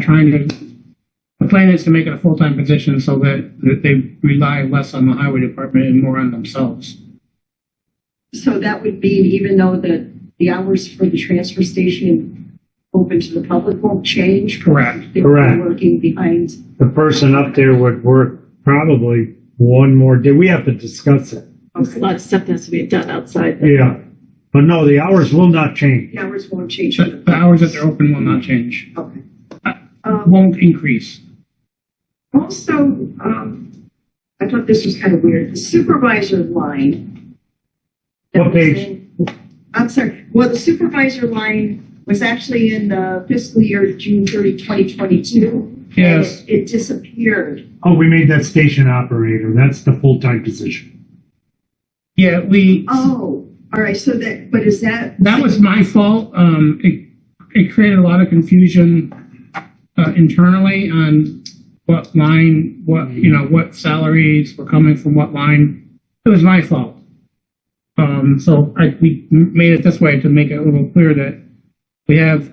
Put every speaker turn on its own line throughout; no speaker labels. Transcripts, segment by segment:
trying to, the plan is to make it a full-time position so that, that they rely less on the highway department and more on themselves.
So that would mean even though the, the hours for the transfer station open to the public won't change?
Correct.
They're
Correct.
working behind,
The person up there would work probably one more day. We have to discuss it.
There's a lot of stuff that has to be done outside.
Yeah. But no, the hours will not change.
the hours won't change.
So The hours that they're open will not change,
Okay.
Uh,
Um,
won't increase.
Also, um, I thought this was kind of weird, the supervisor line. that was
What page?
in- I'm sorry, well, the supervisor line was actually in the fiscal year June 30, 2022.
Yes.
and It disappeared.
Oh, we made that station operator. That's the full-time position.
Yeah, we,
Oh, all right, so that, but is that?
that was my fault. Um, it, it created a lot of confusion uh, internally on what line, what, you know, what salaries were coming from what line. It was my fault. Um, so I, we made it this way to make it a little clear that we have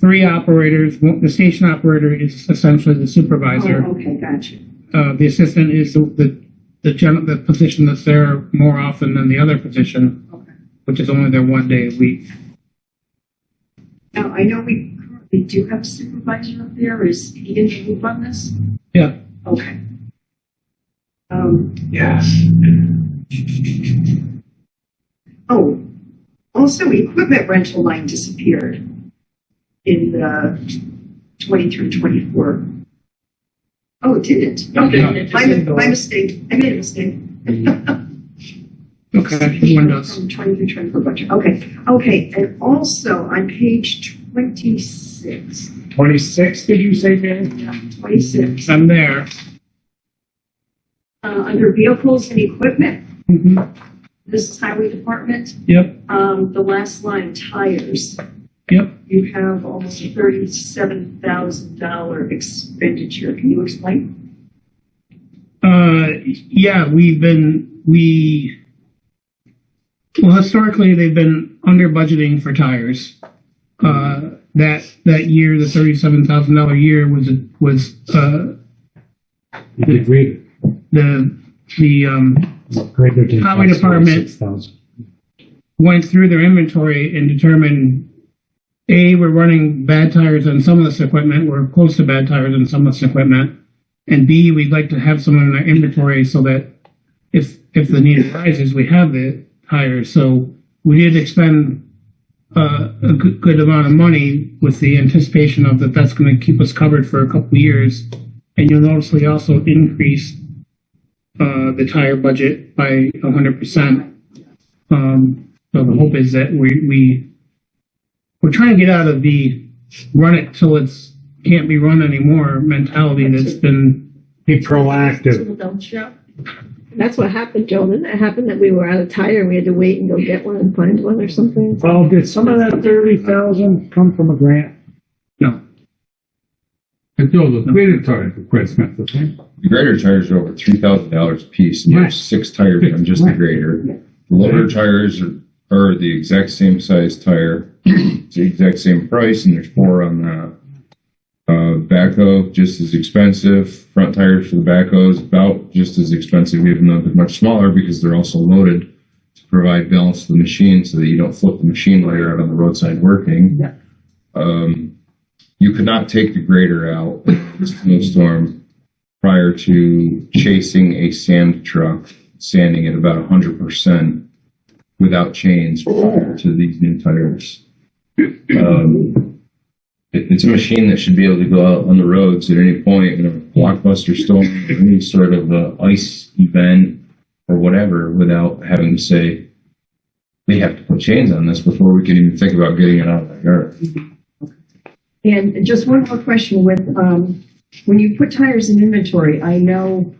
three operators. One- The station operator is essentially the supervisor.
Oh, okay, gotcha.
Uh, the assistant is the, the, the gen, the position that's there more often than the other position,
Okay.
which is only there one day a week.
Now, I know we currently do have a supervisor up there. Is he in the loop on this?
Yeah.
Okay. Um,
Yes.
oh, also equipment rental line disappeared in the twenty through twenty-four. Oh, it didn't. Mm-hmm. Okay, my, my mistake. I made a mistake.
Okay, everyone does.
From twenty through twenty-four budget. Okay, okay. And also on page twenty-six,
Twenty-six, did you say, man?
yeah, twenty-six, uh,
I'm there.
under vehicles and equipment,
Mhm.
this is highway department.
Yep,
Um, the last line, tires,
yep.
you have almost a thirty-seven thousand dollar expenditure. Can you explain?
Uh, yeah, we've been, we, well, historically, they've been under budgeting for tires. Uh, that, that year, the thirty-seven thousand dollar year was, was, uh,
You did greater.
the, the, um,
Greater than.
Highway Department.
Six thousand.
went through their inventory and determined A, we're running bad tires on some of this equipment, we're close to bad tires on some of this equipment. And B, we'd like to have some in our inventory so that if, if the need arises, we have the tires. So we did expend uh, a good, good amount of money with the anticipation of that that's gonna keep us covered for a couple of years. And you'll notice we also increased uh, the tire budget by hundred percent. Um, so the hope is that we, we, we're trying to get out of the run it till it's, can't be run anymore mentality that's been,
Be proactive.
People don't shop. And That's what happened, Joe. Didn't it happen that we were out of tire and we had to wait and go get one and find one or something?
Well, did some of that thirty thousand come from a grant?
no.
And Joe, the greater tire for quite expensive, right?
The grader tires are over three thousand dollars a piece, and
Right.
there's six tires on just the
Yeah.
Right.
grader. The loader tires are, are the exact same size tire, it's the exact same price, and there's four on the uh, backhoe, just as expensive. Front tires for the backhoe is about just as expensive, even though they're much smaller because they're also loaded to provide balance to the machine so that you don't flip the machine while you're out on the roadside working.
Yeah.
Um, you could not take the grader out in a snowstorm prior to chasing a sand truck, sanding at about 100% without chains prior to these new tires. Um, it- it's a machine that should be able to go out on the roads at any point in a blockbuster storm, or any sort of uh ice event or whatever, without having to say, we have to put chains on this before we can even think about getting it out of the yard.
And just one more question with, um, when you put tires in inventory, I know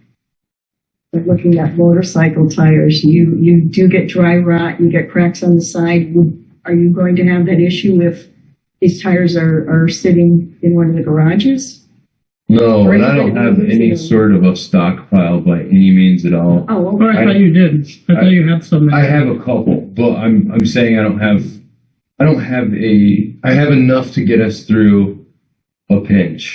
we're looking at motorcycle tires, you, you do get dry rot, you get cracks on the side. Would- Are you going to have that issue if these tires are, are sitting in one of the garages?
No,
Or
and
you
I don't
could
have
use
any
them.
sort of a stockpile by any means at all.
Oh,
Or
okay.
I thought you did. I thought you had some. in
I
there.
have a couple, but I'm I'm saying I don't have I don't have a I have enough to get us through a pinch.